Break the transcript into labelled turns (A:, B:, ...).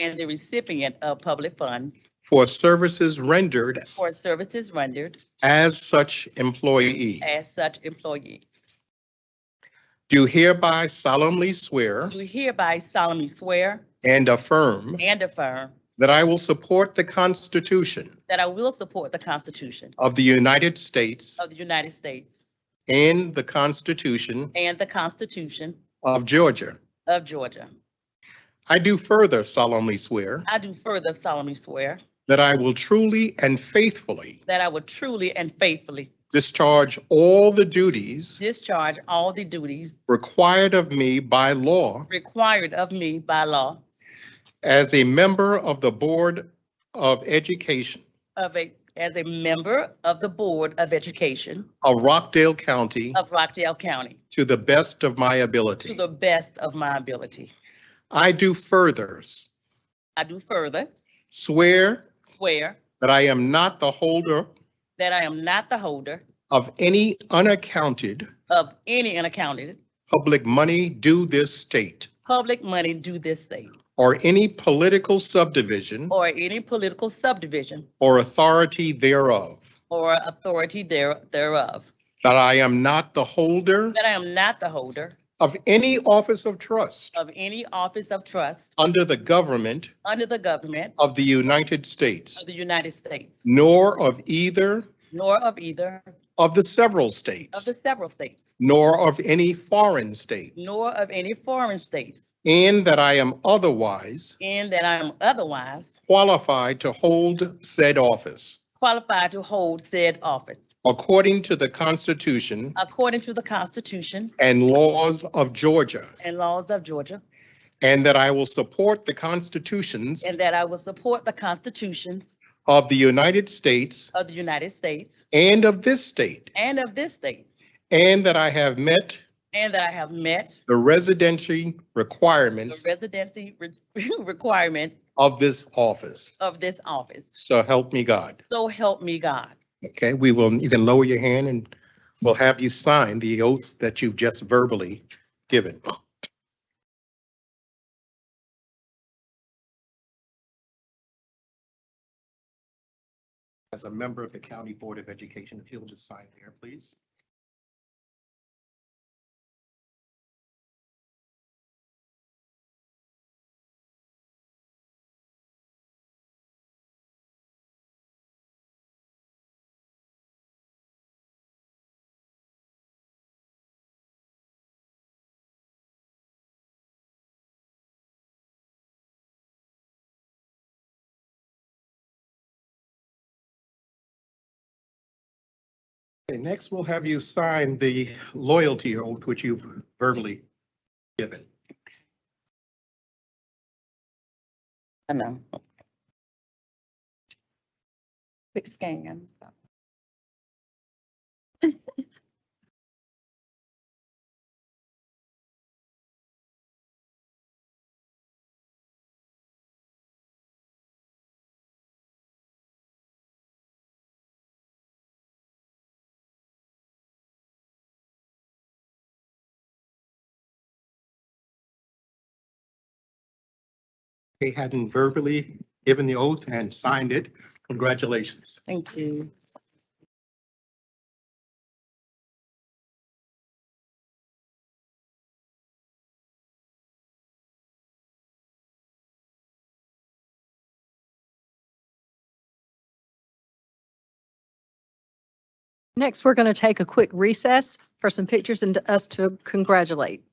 A: and the recipient of public funds
B: for services rendered
A: for services rendered
B: as such employee.
A: as such employee.
B: Do hereby solemnly swear
A: Do hereby solemnly swear
B: and affirm
A: and affirm
B: that I will support the Constitution
A: that I will support the Constitution
B: of the United States
A: of the United States
B: and the Constitution
A: and the Constitution
B: of Georgia.
A: of Georgia.
B: I do further solemnly swear
A: I do further solemnly swear
B: that I will truly and faithfully
A: that I will truly and faithfully
B: discharge all the duties
A: discharge all the duties
B: required of me by law
A: required of me by law
B: as a member of the Board of Education
A: of a, as a member of the Board of Education
B: of Rockdale County
A: of Rockdale County
B: to the best of my
A: to
B: ability.
A: the best of my ability.
B: I do further
A: I do further
B: swear
A: swear
B: that I am not the holder
A: that I am not the holder
B: of any unaccounted
A: of any unaccounted
B: public money due this state
A: public money due this state
B: or any political subdivision
A: or any political subdivision
B: or authority thereof,
A: or authority there- thereof,
B: that I am not the holder
A: that I am not the holder
B: of any office of trust
A: of any office of trust
B: under the government
A: under the government
B: of the United States,
A: of the United States,
B: nor of either
A: nor of either
B: of the several
A: of
B: states,
A: the several states,
B: nor of any foreign state,
A: nor of any foreign states,
B: and that I am otherwise
A: and that I am otherwise
B: qualified to hold said office
A: qualified to hold said office
B: according to the Constitution
A: according to the Constitution
B: and laws of Georgia,
A: and laws of Georgia,
B: and that I will support the constitutions
A: and that I will support the constitutions
B: of the United States
A: of the United States
B: and of this state,
A: and of this state,
B: and that I have met
A: and that I have met
B: the residency
A: the
B: requirements
A: residency re- requirement
B: of this office.
A: of this office.
B: So help me God.
A: So help me God.
B: Okay, we will, you can lower your hand and we'll have you sign the oaths that you've just verbally given. As a member of the County Board of Education, if you'll just sign there, please. Okay, next we'll have you sign the loyalty oath, which you've verbally given.
A: I know. Quick scan.
B: They hadn't verbally given the oath and signed it. Congratulations.
A: Thank you.
C: Next, we're going to take a quick recess for some pictures and us to congratulate.